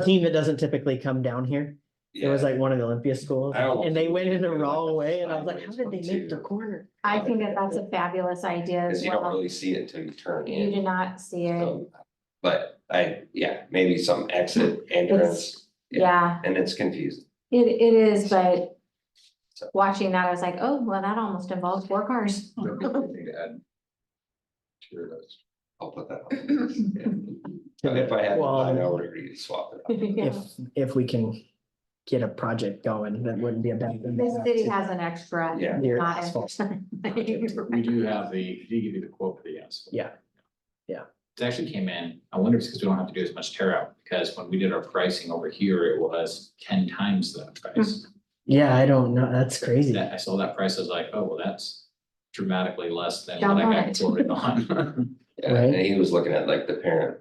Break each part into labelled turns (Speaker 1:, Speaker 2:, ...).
Speaker 1: a team that doesn't typically come down here. It was like one of the Olympia schools
Speaker 2: I don't-
Speaker 1: and they went in the wrong way and I was like, how
Speaker 2: It's
Speaker 1: did they make the
Speaker 2: too.
Speaker 1: corner?
Speaker 3: I think that that's a fabulous idea
Speaker 2: Cause
Speaker 3: as
Speaker 2: you don't
Speaker 3: well.
Speaker 2: really see it until you turn
Speaker 3: You do
Speaker 2: in.
Speaker 3: not see it.
Speaker 2: Um, But I, yeah, maybe some exit entrance yeah.
Speaker 3: Yeah,
Speaker 2: and it's confusing.
Speaker 3: it, it is, but
Speaker 2: So-
Speaker 3: watching that, I was like, oh, well, that almost involves four cars.
Speaker 2: I'll put that on. But if I had to,
Speaker 1: Well- um,
Speaker 2: I would agree to swap it. up.
Speaker 3: Yeah.
Speaker 1: If, if we can get a project going, that wouldn't be a bad thing.
Speaker 3: The city has an extra.
Speaker 2: Yeah.
Speaker 1: Near
Speaker 3: not
Speaker 1: asphalt.
Speaker 3: extra.
Speaker 4: We do have the, he did give you the quote for the asphalt.
Speaker 1: Yeah. Yeah.
Speaker 4: It actually came in, I wonder if it's because we don't have to do as much tear out, because when we did our pricing over here, it was ten times that price.
Speaker 1: Yeah, I don't know. That's crazy.
Speaker 4: That, I saw that price, I was like, oh, well, that's dramatically less than
Speaker 3: Don't
Speaker 4: what I
Speaker 3: want
Speaker 4: got
Speaker 3: it.
Speaker 4: quoted on.
Speaker 2: Yeah, and he was looking at like the parent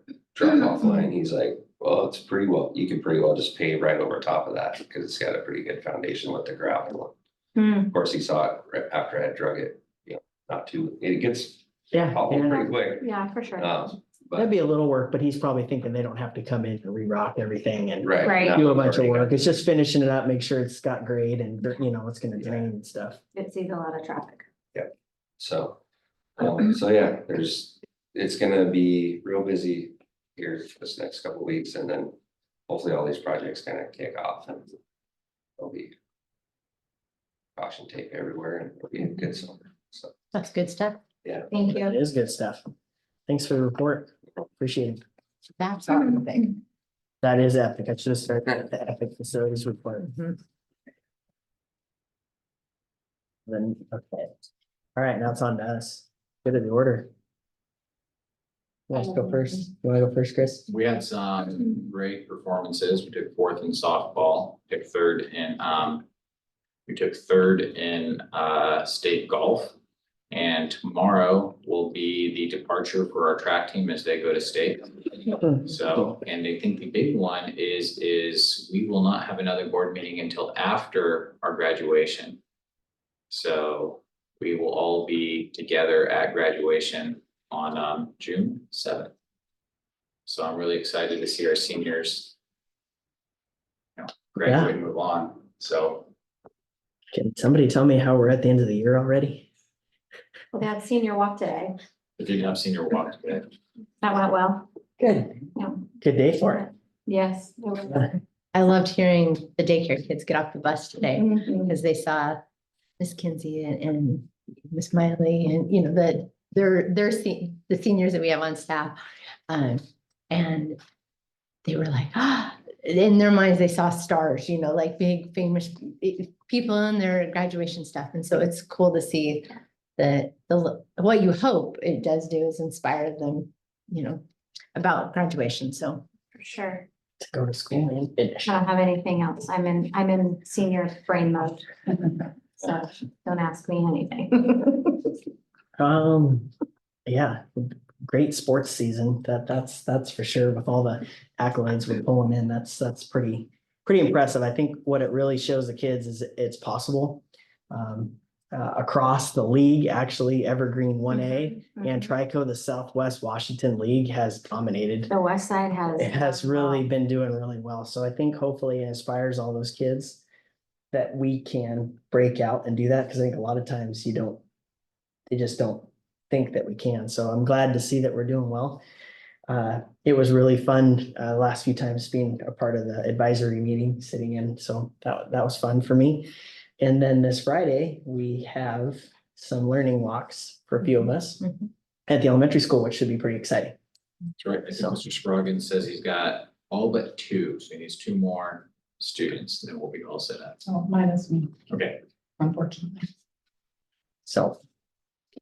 Speaker 2: drop off line, he's like, well, it's pretty well, you can pretty well just pave right over top of that, cause it's got a pretty good foundation with the gravel.
Speaker 3: Hmm.
Speaker 2: Of course, he saw it right after I had drug it, you know, not too, it gets
Speaker 1: Yeah.
Speaker 2: hobbled
Speaker 1: yeah.
Speaker 2: pretty quick,
Speaker 3: Yeah, for sure.
Speaker 2: um,
Speaker 1: That'd
Speaker 2: but,
Speaker 1: be a little work, but he's probably thinking they don't have to come in and re-rock everything and
Speaker 2: right.
Speaker 3: Right.
Speaker 2: now
Speaker 1: do a
Speaker 2: we've
Speaker 1: bunch of
Speaker 2: already got-
Speaker 1: work. It's just finishing it up, make sure it's got grade and, you know, it's gonna drain and stuff.
Speaker 3: It sees a lot of traffic.
Speaker 2: So, um, so yeah, there's, it's gonna be real busy here this next couple of weeks and then hopefully all these projects kind of kick off and there'll be caution tape everywhere and it'll be a good summer, so.
Speaker 5: That's good stuff.
Speaker 3: Thank
Speaker 1: It
Speaker 3: you.
Speaker 1: is good stuff. Thanks for the report. Appreciate it.
Speaker 5: That's our thing.
Speaker 1: That is epic. I should have started with the epic facilities report.
Speaker 3: Mm-hmm.
Speaker 5: Mhm.
Speaker 1: Then, okay. All right, now it's on to us. Good of the order. You want us to go first? You wanna go first, Chris?
Speaker 4: We had some great performances. We took fourth in softball, took third in, um, we took third in, uh, state golf. And tomorrow will be the departure for our track team as they go to state. So, and I think the big one is, is we will not have another board meeting until after our graduation. So we will all be together at graduation on, um, June seventh. So I'm really excited to see our seniors. You know, graduate and move on, so.
Speaker 1: Can somebody tell me how we're at the end of the year already?
Speaker 3: Well, that senior walk today,
Speaker 4: We did have senior walk today.
Speaker 3: that went well.
Speaker 1: Good.
Speaker 3: Yeah.
Speaker 1: Good day for it.
Speaker 3: Yes. it was.
Speaker 5: I loved hearing the daycare kids get off the bus today
Speaker 3: Mhm.
Speaker 5: because they saw Miss Kinsey and- and Miss Miley and, you know, that they're, they're se- the seniors that we have on staff. Um, and they were like, ah, in their minds, they saw stars, you know, like big famous eh, people in their graduation stuff. And so it's cool to see that the, l- what you hope it does do is inspire them, you know, about graduation. So
Speaker 3: For sure.
Speaker 1: To go to school and finish.
Speaker 3: I don't have anything else. I'm in, I'm in senior brain mode. So don't ask me anything.
Speaker 1: Um, yeah, great sports season. That, that's, that's for sure. With all the accolades we're pulling in, that's, that's pretty, pretty impressive. I think what it really shows the kids is it's possible. Um, uh, across the league, actually Evergreen one A
Speaker 3: Mm-hmm.
Speaker 1: and Trico, the Southwest Washington League has dominated.
Speaker 3: The west side has.
Speaker 1: It has really been doing really well. So I think hopefully it inspires all those kids that we can break out and do that because I think a lot of times you don't, they just don't think that we can. So I'm glad to see that we're doing well. Uh, it was really fun, uh, last few times being a part of the advisory meeting, sitting in. So that, that was fun for me. And then this Friday, we have some learning walks for a few of us
Speaker 5: Mhm.
Speaker 1: at the elementary school, which should be pretty exciting.
Speaker 4: That's right. I think Mr. Scroggins says he's got all but two, so he needs two more students, then we'll be all set up.
Speaker 6: Oh, minus me,
Speaker 4: Okay.
Speaker 6: unfortunately.
Speaker 1: So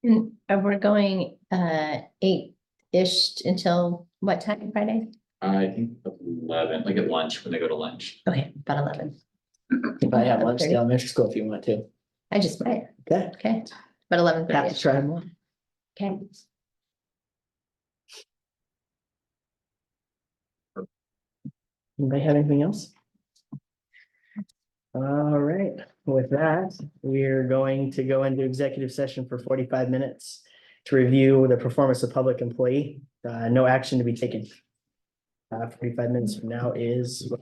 Speaker 5: And uh, we're going uh eight-ish until what time Friday?
Speaker 4: I think eleven, like at lunch, when they go to lunch.
Speaker 5: Okay, about eleven.
Speaker 1: You probably have lunch at the
Speaker 5: 11:30.
Speaker 1: elementary school if you want to.
Speaker 5: I just might,
Speaker 1: Okay.
Speaker 5: okay, but eleven
Speaker 1: Have to
Speaker 5: thirty,
Speaker 1: try one.
Speaker 5: okay.
Speaker 1: Anybody have anything else? All right, with that, we're going to go into executive session for forty-five minutes to review the performance of public employee. Uh, no action to be taken. Uh, forty-five minutes from now is